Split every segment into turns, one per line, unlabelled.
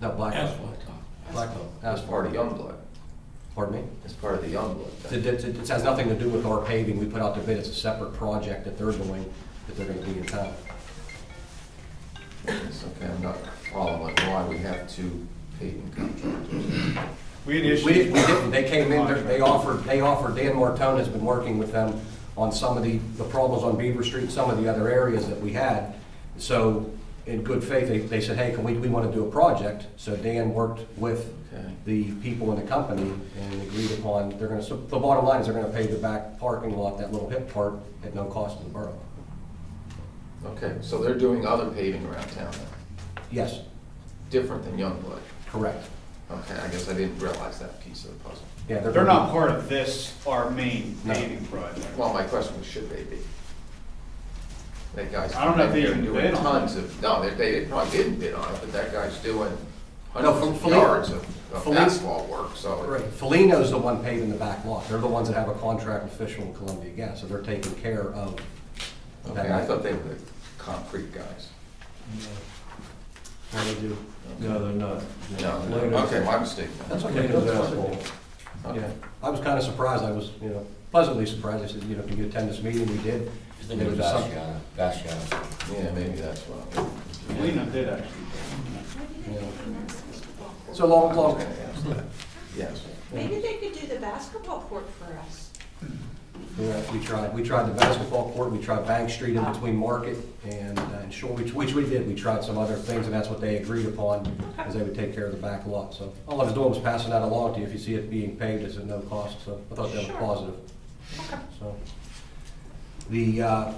No, Blackhawk.
Asphalt top.
Blackhawk.
It's part of Youngblood.
Pardon me?
It's part of the Youngblood
It,
thing.
it- it has nothing to do with our paving. We put out the bid. It's a separate project that they're doing, that they're gonna do in town.
It's okay, I'm not following why we have two paving contractors.
We had
We,
issues.
we didn't. They came in, they're- they offered, they offered, Dan Martone has been working with them on some of the, the problems on Beaver Street, some of the other areas that we had. So in good faith, they, they said, hey, can we, we wanna do a project? So Dan worked with
Okay.
the people in the company and agreed upon, they're gonna, so the bottom line is they're gonna pay the back parking lot, that little hip part, at no cost to the borough.
Okay, so they're doing other paving around town then,
Yes,
different than Youngblood.
correct.
Okay, I guess I didn't realize that piece of the puzzle.
Yeah, they're.
They're
gonna
not part of this, our main
No.
paving project.
Well, my question was, should they be? That guy's.
I don't know if they
they're
even
doing
bid on
Tons of, no, they, they probably didn't bid on it, but that guy's doing
No,
hundreds of
Fel- Fel-
yards of of
Fel-
asphalt work, so. it-
Right, Felino's the one paving the back lot. They're the ones that have a contract with Fisher and Columbia Gas, so they're taking care of
Okay, I
that.
thought they were the concrete guys.
What they do.
No, they're not.
No, no, okay, my mistake. then.
That's okay.
Plato's
That's
asphalt.
Yeah,
Okay.
I was kind of surprised. I was, you know, pleasantly surprised. I said, you know, can you attend this meeting? We did.
I think it was
There some-
Basquiat, Basquiat.
Yeah, maybe that's what.
Lena did actually.
So long,
I was
long,
gonna ask that. Yes.
Maybe they could do the basketball court for us.
yeah, we tried, we tried the basketball court, we tried Bank Street in between Market and, uh, and Shore, which, which we did. We tried some other things, and that's what they agreed upon, is they would take care of the back lot. So all I was doing was passing that along to you. If you see it being paved, it's at no cost, so I thought that was
Sure.
positive.
Okay.
So, the, uh,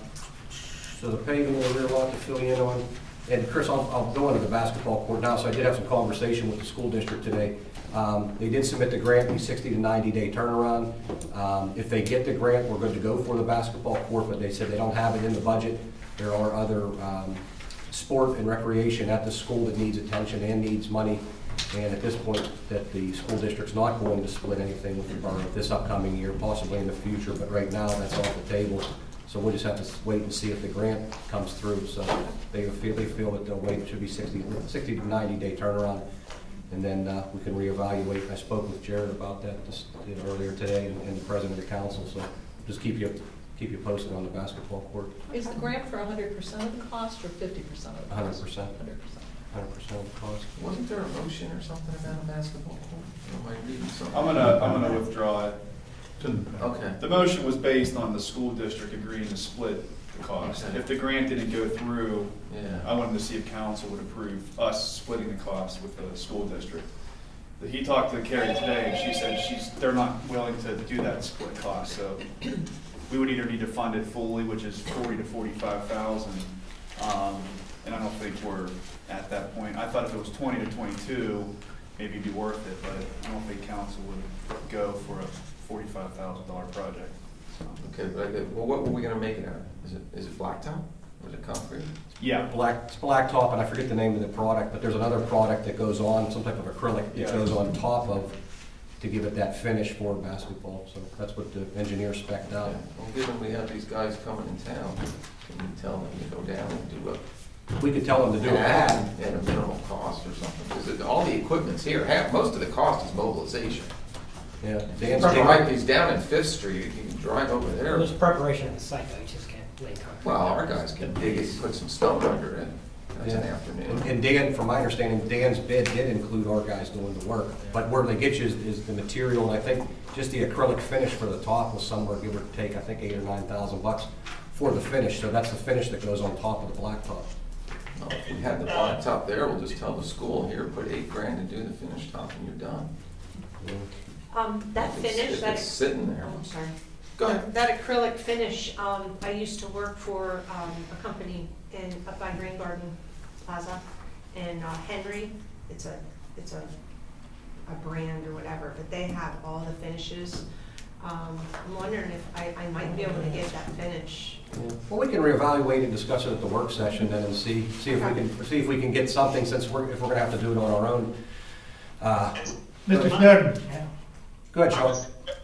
so the paving in the rear lot to fill you in on, and Chris, I'll, I'll go into the basketball court now, so I did have some conversation with the school district today. Um, They did submit the grant, the sixty to ninety day turnaround. Um, If they get the grant, we're good to go for the basketball court, but they said they don't have it in the budget. There are other um, sport and recreation at the school that needs attention and needs money. And at this point, that the school district's not going to split anything with the borough this upcoming year, possibly in the future, but right now, that's off the table. So we'll just have to wait and see if the grant comes through. So they feel, they feel that the wait should be 60 60 to ninety day turnaround. And then uh, we can reevaluate. I spoke with Jared about that just, you know, earlier today and- and the president of the council, so just keep you, keep you posted on the basketball court,
Is the grant for hundred percent of the cost or fifty percent of the cost?
hundred percent,
Hundred percent.
hundred percent of the cost.
Wasn't there a motion or something about a basketball court? Am I reading something?
I'm gonna, I'm gonna withdraw it.
Okay.
The motion was based on the school district agreeing to split the cost.
Okay.
If the grant didn't go through, I
Yeah.
wanted to see if council would approve us splitting the cost with the school district. But He talked to Carrie today, and she said she's, they're not willing to do that split cost, so we would either need to fund it fully, which is forty to forty-five thousand, um, and I don't think we're at that point. I thought if it was twenty to twenty-two, maybe it'd be worth it, but I don't think council would go for a forty-five thousand dollar project. So,
Okay, but I did- well, what were we gonna make it out of? Is it, is it blacktop? Or is it concrete?
Yeah,
black, it's blacktop, and I forget the name of the product, but there's another product that goes on, some type of acrylic that
Yeah.
goes on top of to give it that finish for basketball, so that's what the engineer spec'd out.
Yeah. Well, given we have these guys coming in town, can we tell them to go down and do a
We could tell them to do an ad,
At a minimal cost or something, because all the equipment's here, half, most of the cost is mobilization.
yeah. Dan's
Right,
taking-
he's down in Fifth Street, you can drive over there.
There's preparation of the site, though, you just can't lay concrete.
Well, our guys can dig it, put some stone under it, that's an
Yeah.
afternoon.
And and Dan, from my understanding, Dan's bid did include our guys doing the work, but where they get you is, is the material, and I think just the acrylic finish for the top was somewhere, give or take, I think eight or nine thousand bucks for the finish, so that's the finish that goes on top of the blacktop.
Well, If we had the blacktop there, we'll just tell the school, here, put eight grand to do the finish top and you're done.
Um, that
If it's-
finish,
If
that,
it's sitting there,
oh, I'm sorry.
go ahead.
That acrylic finish, um, I used to work for, um, a company in, up by Rain Garden Plaza in uh, Henry. It's a, it's a, a brand or whatever, but they have all the finishes. Um, I'm wondering if I, I might be able to get that finish.
Well, we can reevaluate and discuss it at the work session then and see, see if we can, see if we can get something, since we're, if we're gonna have to do it on our own. Uh,
Mr. Snowden,
Go ahead, Sean.